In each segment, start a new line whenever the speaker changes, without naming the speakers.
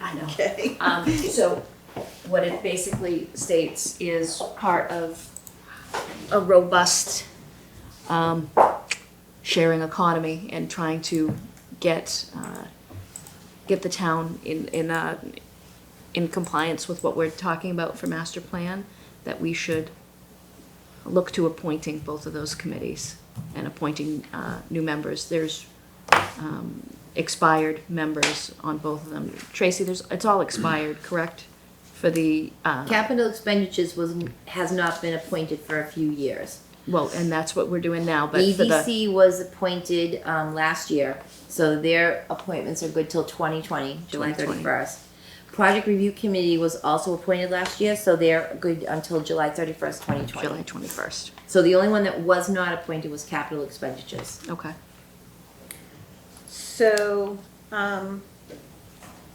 I know.
Okay.
Um, so what it basically states is part of a robust um, sharing economy and trying to get uh, get the town in in uh, in compliance with what we're talking about for master plan that we should look to appointing both of those committees and appointing uh, new members. There's um, expired members on both of them. Tracy, there's, it's all expired, correct? For the, uh,
Capital expenditures was, has not been appointed for a few years.
well, and that's what we're doing now, but for the,
EDC was appointed, um, last year, so their appointments are good till twenty twenty, July
2020.
thirty-first. Project Review Committee was also appointed last year, so they're good until July thirty-first, twenty
July
twenty.
twenty-first,
So the only one that was not appointed was capital expenditures.
okay.
So, um,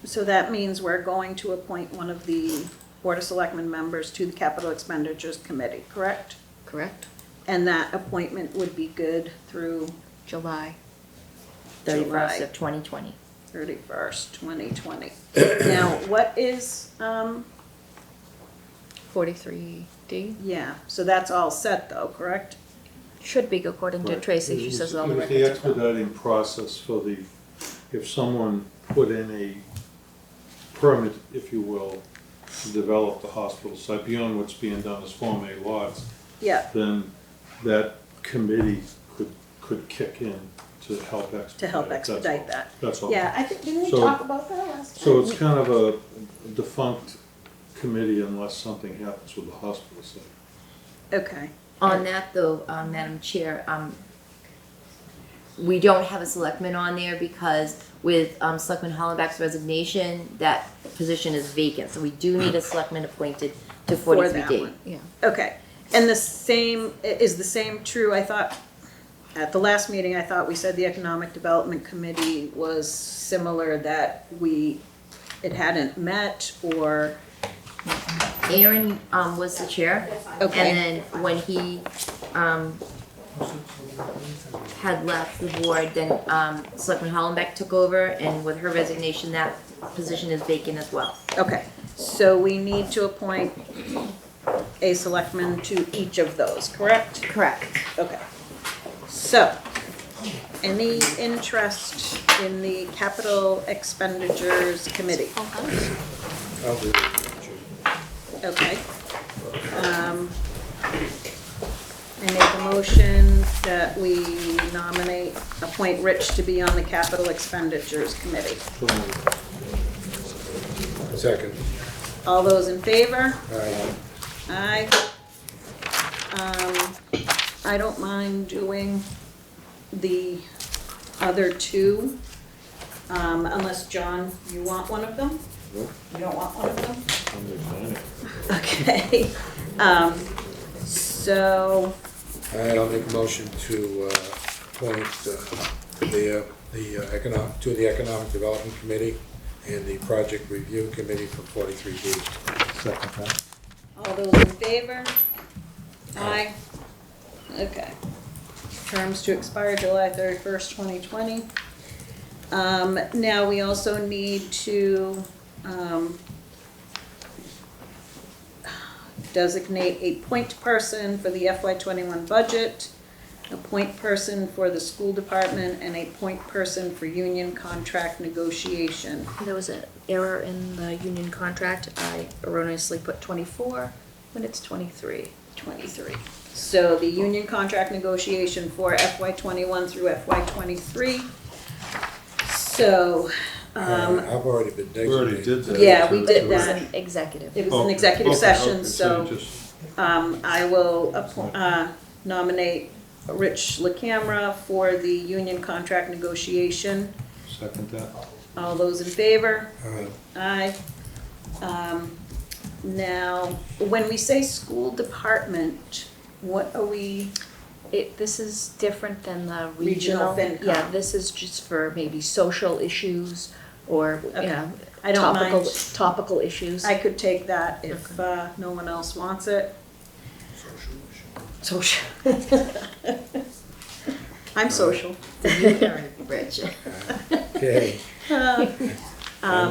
so that means we're going to appoint one of the Board of Selectmen members to the Capital Expenditures Committee, correct?
Correct.
And that appointment would be good through
July,
thirty-first
July.
of twenty twenty.
thirty-first, twenty twenty. Now, what is, um,
forty-three D,
yeah, so that's all set though, correct?
should be according to
Right.
Tracy,
It
she
was-
says all the
It was the
records. are-
expediting process for the, if someone put in a permit, if you will, to develop the hospital site beyond what's being done as Form A lots,
Yeah,
then that committee could, could kick in to help expedite.
to help
That's all.
expedite that.
That's all.
Yeah, I think, didn't we
So-
talk about that last
So
time?
it's kind of a defunct committee unless something happens with the hospital site.
Okay,
On that though, um, Madam Chair, um, we don't have a selectman on there because with, um, Selectman Hollenbeck's resignation, that position is vacant, so we do need a selectman appointed to
For that
forty-three D.
one.
Yeah,
okay. And the same, i- is the same true, I thought, at the last meeting, I thought we said the Economic Development Committee was similar, that we, it hadn't met or,
Aaron, um, was the chair, and
okay,
then when he, um, had left the board, then, um, Selectman Hollenbeck took over, and with her resignation, that position is vacant as well.
okay. So we need to appoint a selectman to each of those, correct?
Correct.
Okay. So, any interest in the capital expenditures committee? Okay. Um, I make a motion that we nominate, appoint Rich to be on the capital expenditures committee.
So
Second.
All those in favor?
Aye.
Aye. Um, I don't mind doing the other two, um, unless, John, you want one of them?
Nope.
You don't want one of them?
I'm resigning.
Okay, um, so,
I'll make a motion to uh, appoint uh, the, uh, the uh, economic, to the Economic Development Committee and the Project Review Committee for 43B.
Second that.
all those in favor? Aye. Okay. Terms to expire July thirty-first, twenty twenty. Um, now, we also need to, um, designate a point person for the FY twenty-one budget, a point person for the school department, and a point person for union contract negotiation.
there was an error in the union contract, I erroneously put twenty-four, when it's twenty-three.
23. So the union contract negotiation for FY '21 through FY '23. So, um,
I've already been
We
designated.
already did that.
Yeah, we did
It was an executive.
it was
Oh,
an executive
okay,
session,
okay, you
so
just-
um, I will appo- uh, nominate Rich LaCamera for the union contract negotiation.
Second that.
All those in favor?
Aye.
Aye. Um, Now, when we say school department, what are we,
It, this is different than the
Regional
regional.
FinCom.
Yeah, this is just for maybe social issues or, you
Okay.
know,
I don't mind.
topical, topical issues.
I could take that if uh, no one else wants it. Social. I'm social.
Thank you, Aaron, Rich.
Uh,
Okay.
Um,